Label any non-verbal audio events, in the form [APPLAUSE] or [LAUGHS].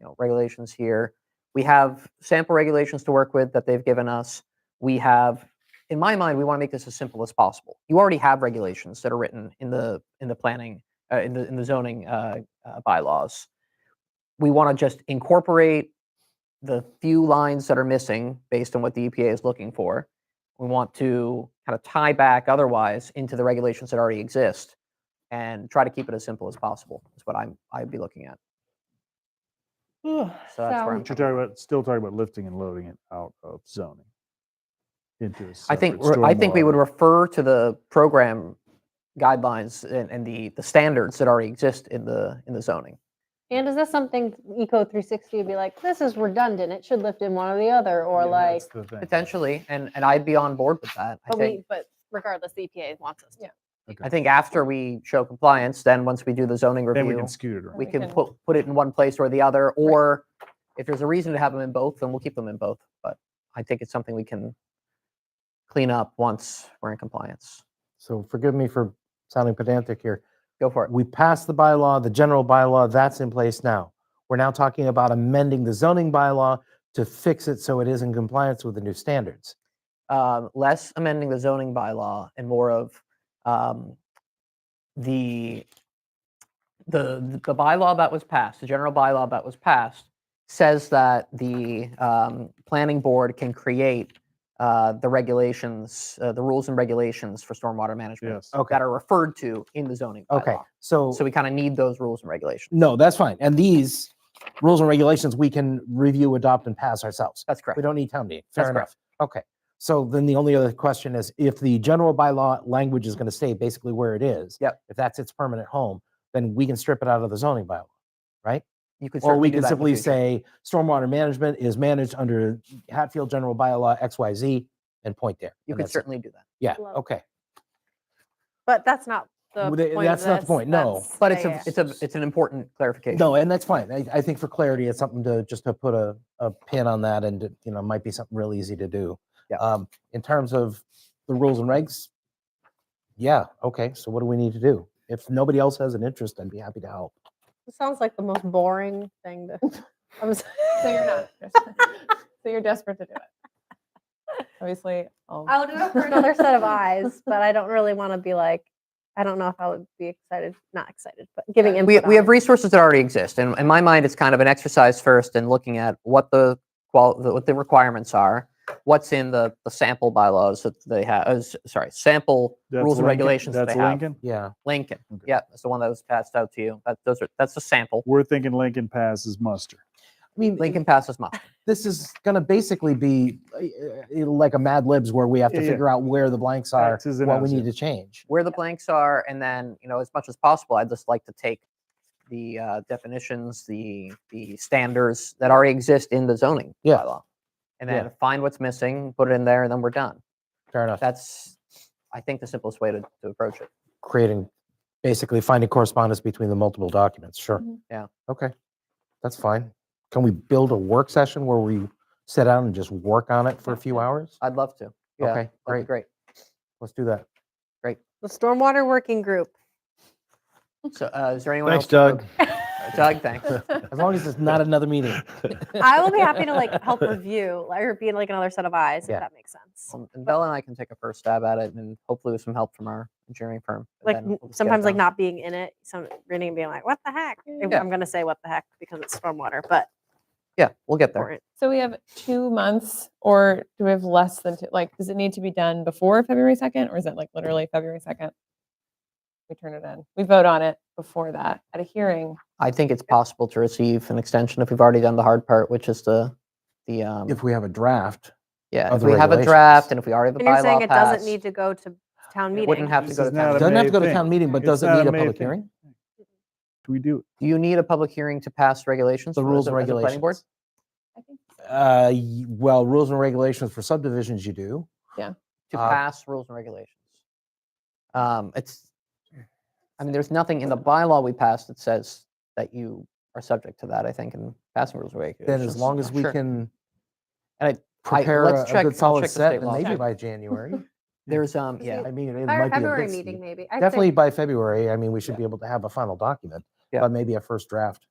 know, regulations here. We have sample regulations to work with that they've given us. We have, in my mind, we want to make this as simple as possible. You already have regulations that are written in the, in the planning, uh, in the, in the zoning, uh, uh, bylaws. We want to just incorporate the few lines that are missing based on what the EPA is looking for. We want to kind of tie back otherwise into the regulations that already exist and try to keep it as simple as possible is what I'm, I'd be looking at. So So that's where I'm I coming But you're talking about, still talking about lifting and loading it out of zoning. into a I think, separate we're- I think we would stormwater. refer to the program guidelines and, and the, the standards that already exist in the, in the zoning. And is this something Eco 360 would be like, this is redundant, it should lift in one or the other, or Yeah, like, that's the thing. Potentially, and, and I'd be on board with that. I But think, we, but regardless, E the EPA wants us to. I think after we show compliance, then once we do the zoning Then we review, can scoot it around. we we can can- put, put it in one place or the other, or if there's a reason to have them in both, then we'll keep them in both. But I think it's something we can clean up once we're in compliance. So forgive me for sounding pedantic here. Go for it. We passed the bylaw, the general bylaw, that's in place now. We're now talking about amending the zoning bylaw to fix it so it is in compliance with the new standards. um, less amending the zoning bylaw and more of um, the the the bylaw that was passed, the general bylaw that was passed, says that the um, planning board can create uh, the regulations, uh, the rules and regulations for stormwater management Yes. Okay. that are referred to in the zoning bylaw. Okay. So, So we kind of need those rules and regulations. no, that's fine. And these rules and regulations we can review, adopt, and pass ourselves. That's correct. We don't need town meeting. That's Fair enough. Okay. So then the only other question is if the general bylaw language is going to stay basically where it is. Yep. If that's its permanent home, then we can strip it out of the zoning bylaw. You could Or certainly we do can that in the simply future. say stormwater management is managed under Hatfield General Bylaw XYZ and point there. you and could that's it. certainly do that. Yeah, Love it. okay. But that's not the Well, point. th- of that's not the this. point, no. That's- But yeah, it's a yeah, yeah. it's a it's an important clarification. No, and that's fine. I, I think for clarity, it's something to, just to put a, a pin on that and, it, you know, might be something real easy to do. Yeah. Um, in terms of the rules and regs, yeah, okay, so what do we need to do? If nobody else has an interest, I'd be happy to help. it sounds like the most boring thing to. [LAUGHS] I'm [LAUGHS] so So you're not. interested. so you're desperate to do it. Obviously. I'll, I'll do it for another set of eyes, but I don't really want to be like, I don't know if I would be excited, not excited, but giving input. we, on we have it. resources that already exist and in my mind it's kind of an exercise first in looking at what the qual the, what the requirements are what's in the, the sample bylaws that they have uh, s- sorry sample That's rules and Lincoln- regulations that That's they have Lincoln? Yeah, lincoln Okay. yeah that's the one that was passed out to you that those are that's the sample We're thinking Lincoln passes muster. I mean, lincoln passes [LAUGHS] muster this is going to basically be uh, uh, like a Mad Libs where we have to Yeah, yeah. figure out where the blanks are, X's and what we O's, need yeah. to change. where the blanks are and then you know as much as possible i'd just like to take the uh, definitions the the standards that already exist in the zoning Yeah. bylaw and Yeah. then find what's missing put it in there and then we're done Fair enough. that's i think the simplest way to, to approach it creating, basically finding correspondence between the multiple documents, sure. Mhm. Yeah. Okay, that's fine. Can we build a work session where we sit down and just work on it for a few hours? i'd love to yeah that'd Okay, be great, great let's do that. The Stormwater Working [LAUGHS] Group. so uh, is there anyone Thanks, else who Doug. would- [LAUGHS] doug thanks As long as it's not another meeting. I will be happy to like help review or be like another set of eyes, Yeah. if that makes sense. um, and bella and i can take a first stab at it and hopefully with some help from our engineering firm and Like then n- we'll just get it sometimes like done. not being in it, some reading and being like, what the heck? If- Yeah. I'm gonna say what the heck because it's stormwater, but yeah we'll get there important. so we have two months, or do we have less than two? Like, does it need to be done before February 2nd, or is it like literally February 2nd? We turn it in. We vote on it before that at a hearing. i think it's possible to receive an extension if we've already done the hard part which is the the um If we have a draft, yeah of if the we have a draft regulations. and if we already have a And you're saying bylaw it passed, doesn't need to go to town it meeting? wouldn't have to This go to is not town a meeting. doesn't have May to go to thing. town meeting, but It's does it not a need a May public thing. hearing? Do we do it? do you need a public hearing to pass regulations The for- as rules a- and as a planning board? regulations. I think Uh, y- well, rules and regulations for subdivisions you do. to Uh, pass rules and regulations. Um, it's, Mm. I mean, there's nothing in the bylaw we passed that says that you are subject to that, I think, in passing rules and regulations. Then as long as we Sure. can And I- I, prepare a let's a check, good I'll solid check the set state and law. maybe by January. There's, um, Is yeah, it- I mean, it By might our be a February bit- meeting, maybe. I'd say Definitely by February. I mean, we should be able to have a final document, Yeah. but maybe a first draft.